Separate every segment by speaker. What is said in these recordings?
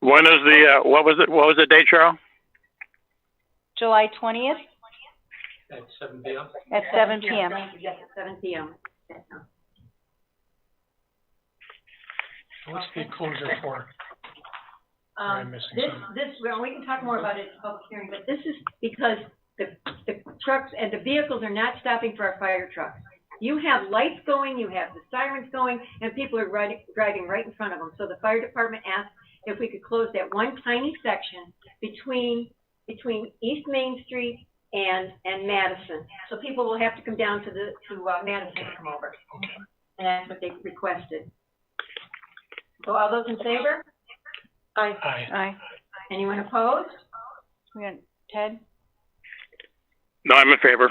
Speaker 1: When is the, uh, what was it, what was the date, Cheryl?
Speaker 2: July twentieth
Speaker 3: at seven P M.
Speaker 2: at seven PM.
Speaker 4: Thank you, yes, seven P M.
Speaker 3: What's the closure for? Am I
Speaker 4: Um,
Speaker 3: missing
Speaker 4: this,
Speaker 3: something?
Speaker 4: this, well, we can talk more about it in public hearing, but this is because the, the trucks and the vehicles are not stopping for our fire trucks. You have lights going, you have the sirens going, and people are riding, driving right in front of them. So the fire department asked if we could close that one tiny section between, between East Main Street and, and Madison. So people will have to come down to the, to, uh, Madison to come over. And that's what they requested. So all those in favor? Aye.
Speaker 3: Aye.
Speaker 2: Aye.
Speaker 4: Anyone opposed?
Speaker 2: We got Ted?
Speaker 1: No, I'm in favor.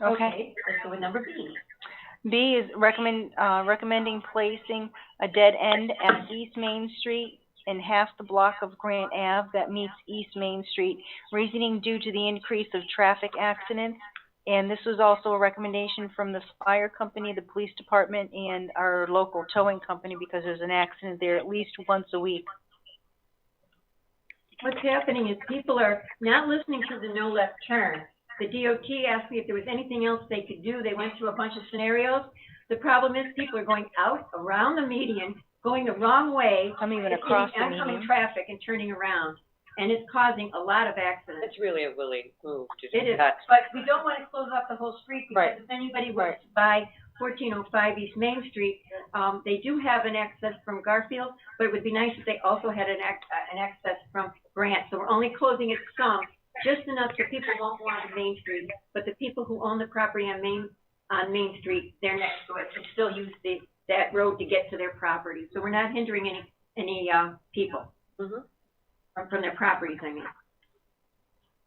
Speaker 2: Okay.
Speaker 4: Let's go with number B.
Speaker 2: B is recommend, uh, recommending placing a dead end at East Main Street in half the block of Grant Ave that meets East Main Street, reasoning due to the increase of traffic accidents. And this was also a recommendation from the fire company, the police department, and our local towing company because there's an accident there at least once a week.
Speaker 4: What's happening is people are not listening to the no left turn. The DOT asked me if there was anything else they could do. They went through a bunch of scenarios. The problem is people are going out around the median, going the wrong way.
Speaker 2: I'm even
Speaker 4: hitting
Speaker 2: across the
Speaker 4: Oncoming
Speaker 2: median.
Speaker 4: traffic and turning around, and it's causing a lot of accidents.
Speaker 5: That's really a willing move to
Speaker 4: It
Speaker 5: do
Speaker 4: is,
Speaker 5: that.
Speaker 4: but we don't want to close off the whole street because
Speaker 5: Right.
Speaker 4: if anybody wants to buy fourteen oh five East Main Street, um, they do have an access from Garfield, but it would be nice if they also had an ac- uh, an access from Grant. So we're only closing it some, just enough so people won't go on to Main Street, but the people who own the property on Main, on Main Street, they're next to it, can still use the, that road to get to their property. So we're not hindering any, any, uh, people
Speaker 5: Mhm.
Speaker 4: from, from their properties, I mean.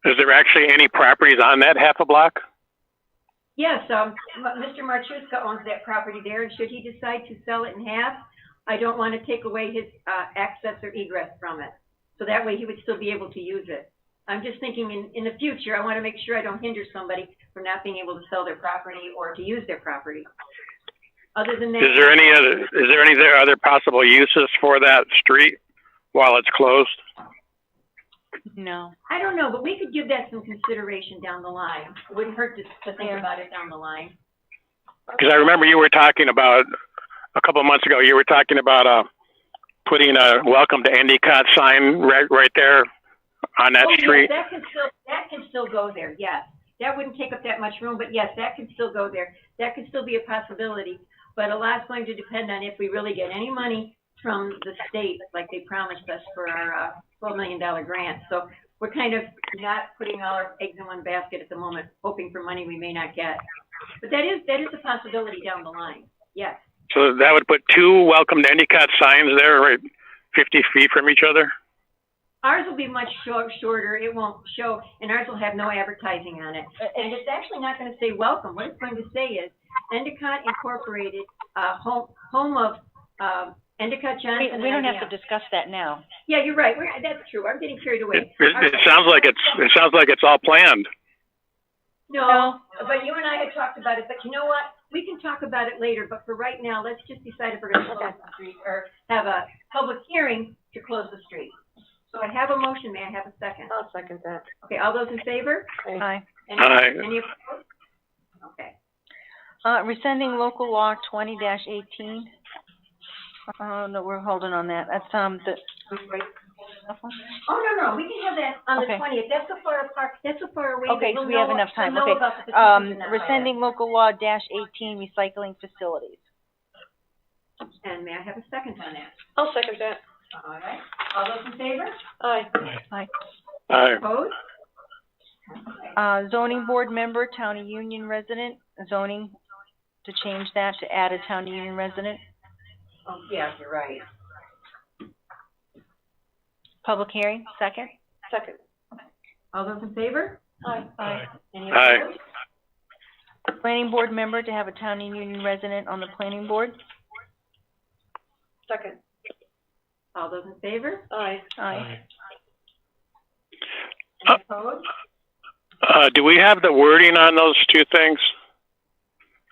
Speaker 1: Is there actually any properties on that half a block?
Speaker 4: Yes, um, M- Mr. Marchuska owns that property there, and should he decide to sell it in half, I don't want to take away his, uh, access or egress from it. So that way he would still be able to use it. I'm just thinking in, in the future, I want to make sure I don't hinder somebody from not being able to sell their property or to use their property. Other than that.
Speaker 1: Is there any other, is there any there other possible uses for that street while it's closed?
Speaker 2: No.
Speaker 4: I don't know, but we could give that some consideration down the line. Wouldn't hurt to, to think about it down the line.
Speaker 1: Because I remember you were talking about, a couple of months ago, you were talking about, uh, putting a welcome to Endicott sign right, right there on that
Speaker 4: Oh, yes,
Speaker 1: street.
Speaker 4: That can still, that can still go there, yes. That wouldn't take up that much room, but yes, that could still go there. That could still be a possibility. But a lot's going to depend on if we really get any money from the state, like they promised us for our, uh, twelve million dollar grant. So we're kind of not putting all our eggs in one basket at the moment, hoping for money we may not get. But that is, that is a possibility down the line, yes.
Speaker 1: So that would put two welcome to Endicott signs there, right, fifty feet from each other?
Speaker 4: Ours will be much shor- shorter, it won't show, and ours will have no advertising on it. And it's actually not gonna say welcome, what it's going to say is Endicott Incorporated, uh, home, home of, um, Endicott
Speaker 2: We,
Speaker 4: Johnson.
Speaker 2: we don't
Speaker 4: and
Speaker 2: have to
Speaker 4: IBM.
Speaker 2: discuss that now.
Speaker 4: Yeah, you're right, we're, that's true, I'm getting carried
Speaker 1: It,
Speaker 4: away.
Speaker 1: it, it sounds like it's, it sounds like it's all planned.
Speaker 4: No, but you and I had talked about it, but you know what? We can talk about it later, but for right now, let's just decide if we're gonna close the street or have a public hearing to close the street. So I have a motion, may I have a second?
Speaker 2: Uh,
Speaker 5: I'll second that.
Speaker 4: Okay, all those in favor?
Speaker 2: Aye.
Speaker 4: Any-
Speaker 1: Aye.
Speaker 4: Any opposed? Okay.
Speaker 2: Uh, rescinding local law twenty dash eighteen. Uh, no, we're holding on that. That's, um, the.
Speaker 4: Oh, no, no, we can have that on the
Speaker 2: Okay.
Speaker 4: twentieth, that's so far apart, that's so far away. that
Speaker 2: Okay,
Speaker 4: we'll
Speaker 2: we have
Speaker 4: know-
Speaker 2: enough time.
Speaker 4: we'll know
Speaker 2: Okay.
Speaker 4: about the petition
Speaker 2: Um,
Speaker 4: tonight.
Speaker 2: rescinding local law dash eighteen recycling facilities.
Speaker 4: And may I have a second on that?
Speaker 5: I'll second that.
Speaker 4: All right, all those in favor?
Speaker 5: Aye.
Speaker 1: Aye.
Speaker 4: Opposed?
Speaker 2: Uh, zoning board member, town of union resident, zoning, to change that to add a town of union resident.
Speaker 4: Oh, yeah, you're right.
Speaker 2: Public hearing, second.
Speaker 5: Second.
Speaker 4: All those in favor?
Speaker 5: Aye.
Speaker 3: Aye.
Speaker 4: Any
Speaker 1: Aye.
Speaker 4: opposed?
Speaker 2: Planning board member to have a town of union resident on the planning board.
Speaker 5: Second.
Speaker 4: All those in favor?
Speaker 5: Aye.
Speaker 2: Aye.
Speaker 1: Uh,
Speaker 4: Any opposed?
Speaker 1: Uh, do we have the wording on those two things?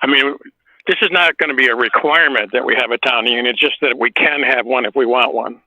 Speaker 1: I mean, this is not going to be a requirement that we have a town union, it's just that we can have one if we want one.